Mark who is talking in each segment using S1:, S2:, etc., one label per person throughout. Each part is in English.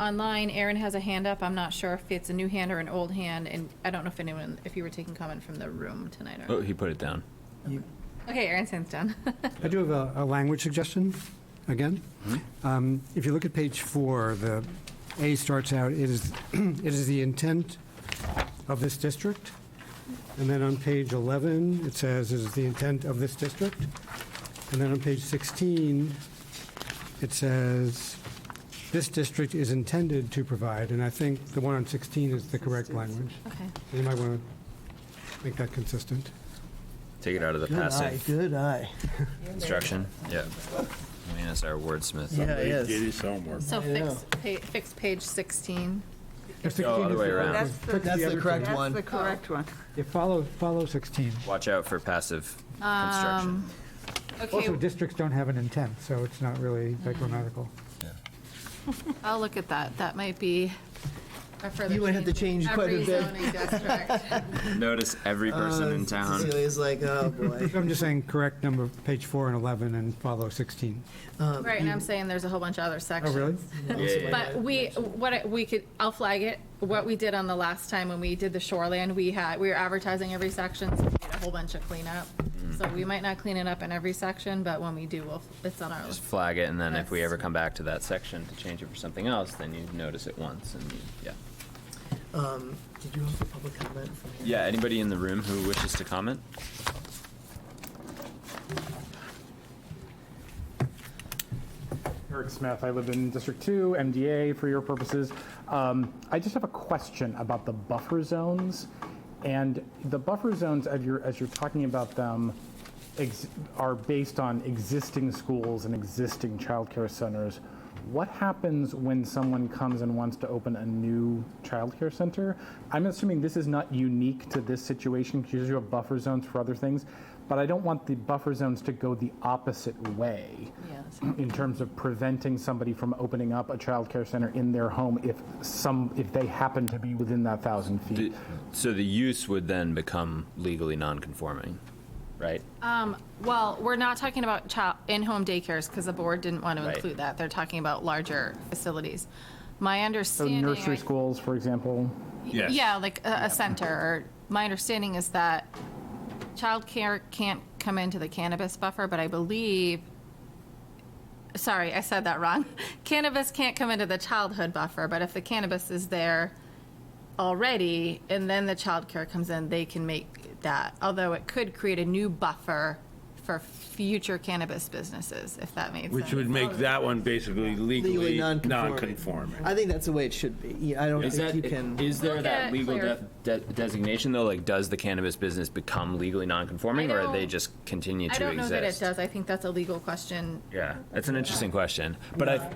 S1: online, Erin has a hand up. I'm not sure if it's a new hand or an old hand, and I don't know if anyone, if you were taking comment from the room tonight
S2: Oh,
S1: or.
S2: he put it down.
S3: You-
S4: Oh.
S1: Okay, Erin's hand's down.
S3: I do have a, a language suggestion, again.
S2: Mm-hmm.
S3: Um, If you look at page four, the A starts out, it is, it is the intent of this district. And then on page 11, it says, it is the intent of this district. And then on page 16, it says, this district is intended to provide. And I think the one on 16 is the correct language.
S1: Okay.
S3: You might want to make that consistent.
S2: Take it out of the
S4: Good eye,
S2: passive
S4: good eye.
S2: construction. Yeah. I mean, it's our wordsmith.
S4: Yeah, yes.
S5: Did his homework.
S1: So
S4: I know.
S1: fix, pa- fix page 16.
S3: If 16
S2: other
S3: is
S2: way
S3: the-
S2: around.
S6: That's the,
S3: Fix
S4: That's the
S3: other
S4: correct
S3: page.
S4: one.
S6: that's the correct one.
S3: Yeah, follow, follow 16.
S2: Watch out for passive construction.
S1: Okay,
S3: Also, districts don't have an intent, so it's not really that grammatical.
S1: I'll look at that. That might be a further.
S4: You might have to change quite a
S1: Every
S4: bit.
S1: zoning district.
S2: Notice every person
S4: uh,
S2: in town.
S4: Celia's like, oh boy.
S3: I'm just saying, correct number, page four and 11, and follow 16.
S4: Um,
S1: Right, and I'm saying there's a whole bunch of other
S3: Oh,
S1: sections.
S3: really?
S4: also
S2: Yeah.
S4: my
S1: But we, what, I- we could, I'll flag it, what we did on the last time when we did the shoreland, we had, we were advertising every section, so we did a whole bunch of cleanup. So we might not clean it up in every section, but when we do, we'll, it's on our
S2: Just
S1: list.
S2: flag it, and then if we
S1: That's-
S2: ever come back to that section to change it for something else, then you notice it once, and you, yeah.
S4: Um, Did you have a public comment from here?
S2: Yeah, anybody in the room who wishes to comment?
S7: Eric Smith, I live in District 2, MDA for your purposes. Um, I just have a question about the buffer zones. And the buffer zones, as you're, as you're talking about them, ex- are based on existing schools and existing childcare centers. What happens when someone comes and wants to open a new childcare center? I'm assuming this is not unique to this situation because you have buffer zones for other things, but I don't want the buffer zones to go the opposite way in terms of preventing somebody from opening up a child care center in their home if some, if they happen to be within that thousand feet.
S2: So the use would then become legally non-conforming, right?
S1: Well, we're not talking about child, in-home daycares, because the board didn't want to
S2: Right.
S1: include that. They're talking about larger facilities. My
S7: So
S1: understanding.
S7: nursery
S1: I-
S7: schools, for example.
S5: Yes.
S1: Yeah, like a, a center, or, my understanding is that childcare can't come into the cannabis buffer, but I believe, sorry, I said that wrong. Cannabis can't come into the childhood buffer, but if the cannabis is there already, and then the childcare comes in, they can make that, although it could create a new buffer for future cannabis businesses, if that makes sense.
S5: Which would make that one basically
S4: Legally
S5: legally
S4: non-conforming.
S5: non-conforming.
S4: I think that's the way it should be. Yeah, I don't
S2: Is
S4: think
S2: that,
S4: you can.
S2: is there
S1: Look
S2: that
S1: at
S2: legal
S1: Claire.
S2: de- de- designation though? Like, does the cannabis business become legally non-conforming,
S1: I
S2: or they
S1: don't-
S2: just continue to
S1: I
S2: exist?
S1: don't know that it does, I think that's a legal question.
S2: Yeah, that's an interesting question, but I,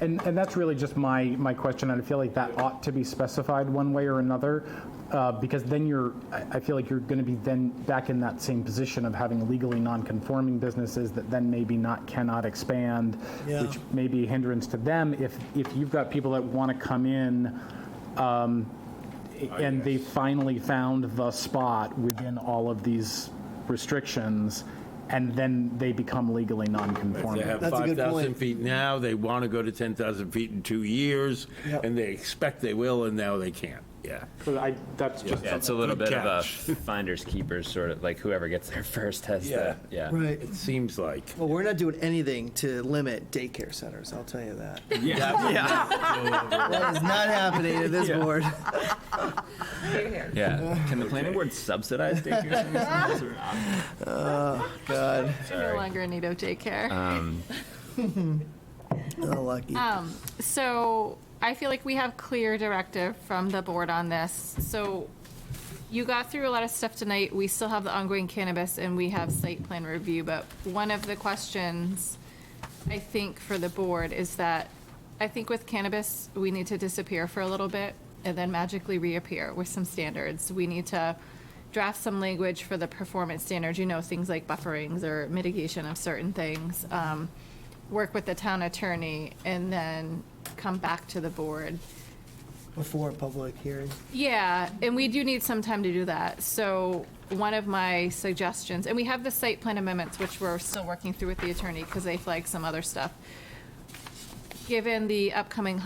S7: And, and that's really just my, my question, and I feel like that ought to be specified one way or another, uh, because then you're, I I feel like you're gonna be then back in that same position of having legally non-conforming businesses that then maybe not, cannot expand,
S4: Yeah.
S7: which may be a hindrance to them, if, if you've got people that wanna come in, um, and they finally found the spot within all of these restrictions, and then they become legally non-conforming.
S5: They have
S4: That's a good
S5: 5,000
S4: point.
S5: feet now, they want to go to 10,000 feet in two years,
S4: Yep.
S5: and they expect they will, and now they can't, yeah.
S7: So I, that's just
S2: yeah, it's a little
S5: Good
S2: bit of a
S5: catch.
S2: finders keepers sort of, like whoever gets there first has
S5: Yeah.
S2: the, yeah.
S4: Right.
S5: It seems like.
S4: Well, we're not doing anything to limit daycare centers, I'll tell you that.
S2: Yeah,
S4: That is not happening at this board.
S2: yeah. Can the planning board subsidize daycare centers? or not?
S4: God,
S1: No longer in need of daycare.
S4: oh, lucky.
S1: So I feel like we have clear directive from the board on this. So you got through a lot of stuff tonight. We still have the ongoing cannabis and we have site plan review. But one of the questions I think for the board is that I think with cannabis, we need to disappear for a little bit and then magically reappear with some standards. We need to draft some language for the performance standards, you know, things like bufferings or mitigation of certain things. Um, work with the town attorney and then come back to the board.
S4: Before a public hearing.
S1: Yeah, and we do need some time to do that. So one of my suggestions, and we have the site plan amendments, which we're still working through with the attorney because they flagged some other stuff. Given the upcoming